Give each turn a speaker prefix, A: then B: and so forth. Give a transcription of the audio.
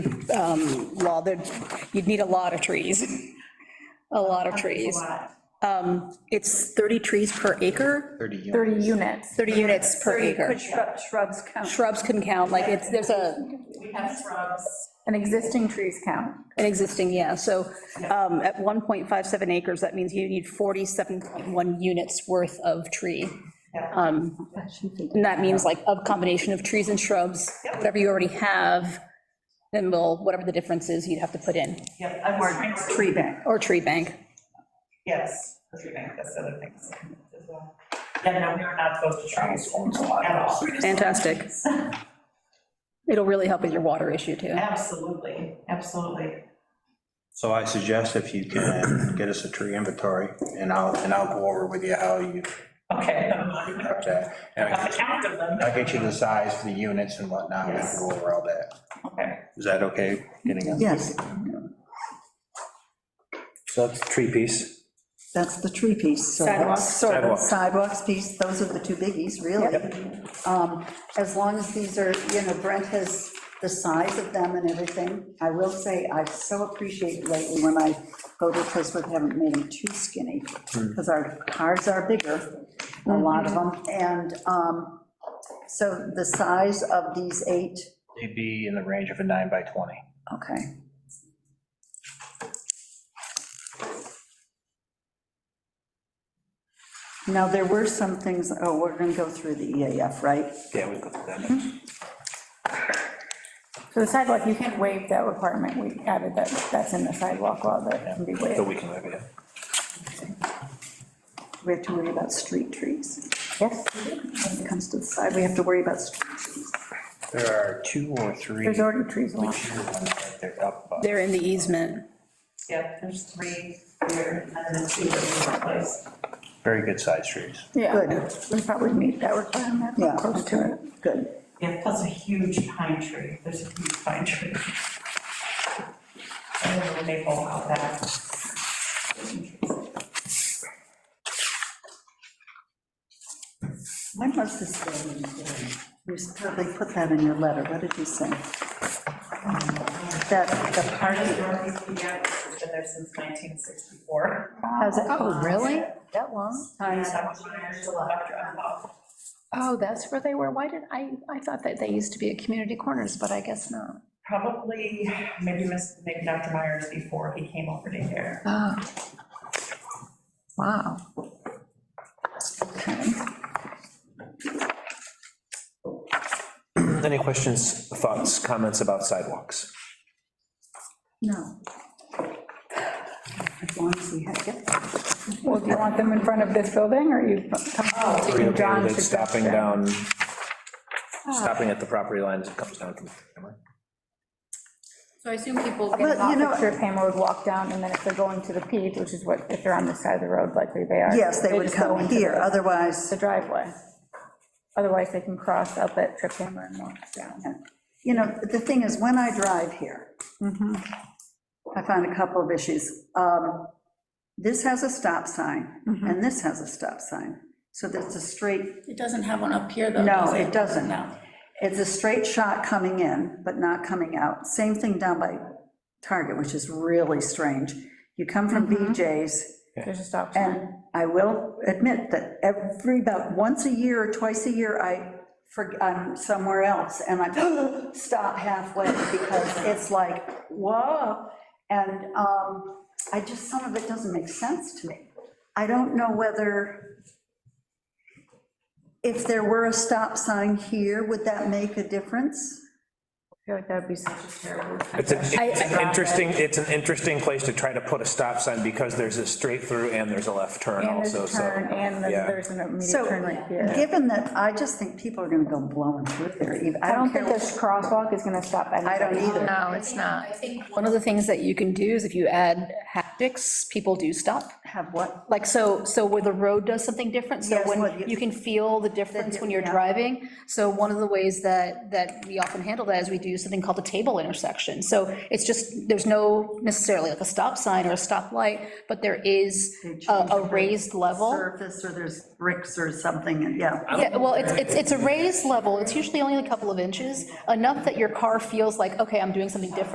A: um, law, that you'd need a lot of trees, a lot of trees. Um, It's 30 trees per acre,
B: 30 units.
C: 30 units.
A: 30 units per acre.
D: Could shrub- shrubs count?
A: Shrubs can count, like, it's, there's a,
D: We have shrubs.
C: And existing trees count.
A: an existing, yeah, so um, at 1.57 acres, that means you need 47.1 units worth of tree. Um, And that means like a combination of trees and shrubs, whatever you already have, then we'll, whatever the difference is, you'd have to put in,
E: Yep, I'm working,
D: Tree bank.
A: or tree bank.
E: yes, that's your bank, that's the other thing. as well. Yeah, no, we are not supposed to try at all.
A: Fantastic. It'll really help with your water issue, too.
E: Absolutely, absolutely.
B: So I suggest if you can get us a tree inventory, and I'll, and I'll go over with you how you
E: Okay.
B: got that. And
E: I've counted them.
B: I'll get you the size of the units and whatnot, and we'll go over all that.
E: Okay.
B: Is that okay? Getting a-
F: Yes,
G: So that's the tree piece.
F: that's the tree piece. so
A: Sidewalks,
F: that's-
A: sort of.
G: Sidewalk.
F: Sidewalks piece, those are the two biggies, really. Um, As long as these are, you know, Brent has the size of them and everything. I will say, I so appreciate lately when I go to a place where they haven't made them too skinny,
G: Hmm.
F: because our cars are bigger, a lot of them. And um, so the size of these eight,
B: They'd be in the range of a nine by 20.
F: okay. Now, there were some things, oh, we're going to go through the EAF, right?
G: Yeah, we got that.
C: So the sidewalk, you can waive that requirement. We added that, that's in the sidewalk law that can be
G: So
C: waived.
G: we can live it.
F: We have to worry about street trees. Yes. When it comes to the side, we have to worry about street trees.
B: There are two or three.
C: There's already trees along.
B: mature ones that They're up, uh,
A: They're in the easement.
E: Yeah, there's three here, and then two in the place.
B: very good sized trees.
C: Yeah,
F: Good.
C: we probably meet that requirement,
F: Yeah,
C: close to it.
F: Good.
E: Yeah, plus a huge pine tree, there's a huge pine tree. I don't know, maple out back.
F: When was this building built? You probably put that in your letter. What did you say? That the part
E: Part of the
F: of,
E: Northeast Pediatric has been there since 1964.
F: how's it?
H: Oh, really? That long?
E: And that was when I was still a doctor at law.
H: Oh, that's where they were. Why did, I, I thought that they used to be at community corners, but I guess not.
E: Probably, maybe Miss, maybe Dr. Myers before he came over to here.
H: Oh. Wow.
G: Any questions, thoughts, comments about sidewalks?
F: No. As long as we have, yep.
C: Well, do you want them in front of this building or you?
G: Are you okay
C: John's
G: with it stopping
C: suggestion.
G: down, stopping at the property line as it comes down from the camera?
C: So I assume people
F: Well,
C: get
F: you
C: off
F: know-
C: at Trip Hammer would walk down, and then if they're going to the peak, which is what, if they're on this side of the road, likely they are.
F: Yes, they would
C: just go
F: come
C: into
F: here,
C: the-
F: otherwise,
C: The driveway. Otherwise, they can cross up at Trip Hammer and walk down.
F: you know, the thing is, when I drive here, I find a couple of issues. Um, This has a stop sign, and this has a stop sign. So that's a straight
C: It doesn't have one up here, though.
F: No, it doesn't. It's a straight shot coming in, but not coming out. Same thing down by Target, which is really strange. You come from BJ's,
C: There's a stop sign.
F: and I will admit that every, about once a year or twice a year, I, forg- I'm somewhere else, and I stop halfway, because it's like, whoa, and um, I just, some of it doesn't make sense to me. I don't know whether, if there were a stop sign here, would that make a difference?
C: I feel like that'd be such a terrible.
G: It's an- it's an interesting, it's an interesting place to try to put a stop sign because there's a straight through and there's a left turn
C: And there's
G: also,
C: a
G: so.
C: turn, and then
G: yeah.
C: there's an immediate
F: So,
C: turn right here.
F: given that, I just think people are gonna go blowing through there, even, I
C: I don't
F: don't
C: think
F: care,
C: this crosswalk is gonna stop
F: I
C: anybody.
F: don't either.
H: No, it's not.
A: I think one of the things that you can do is if you add haptics, people do stop.
F: Have what?
A: Like, so, so where the road does something different, so
F: Yes, what you-
A: when, you can feel the difference when you're
F: yeah.
A: driving. So one of the ways that, that we often handle that is we do something called a table intersection. So it's just, there's no necessarily like a stop sign or a stoplight, but there is a, a raised level.
F: Surface, or there's bricks or something, and yeah.
A: Yeah, well, it's, it's, it's a raised level, it's usually only a couple of inches, enough that your car feels like, okay, I'm doing something different.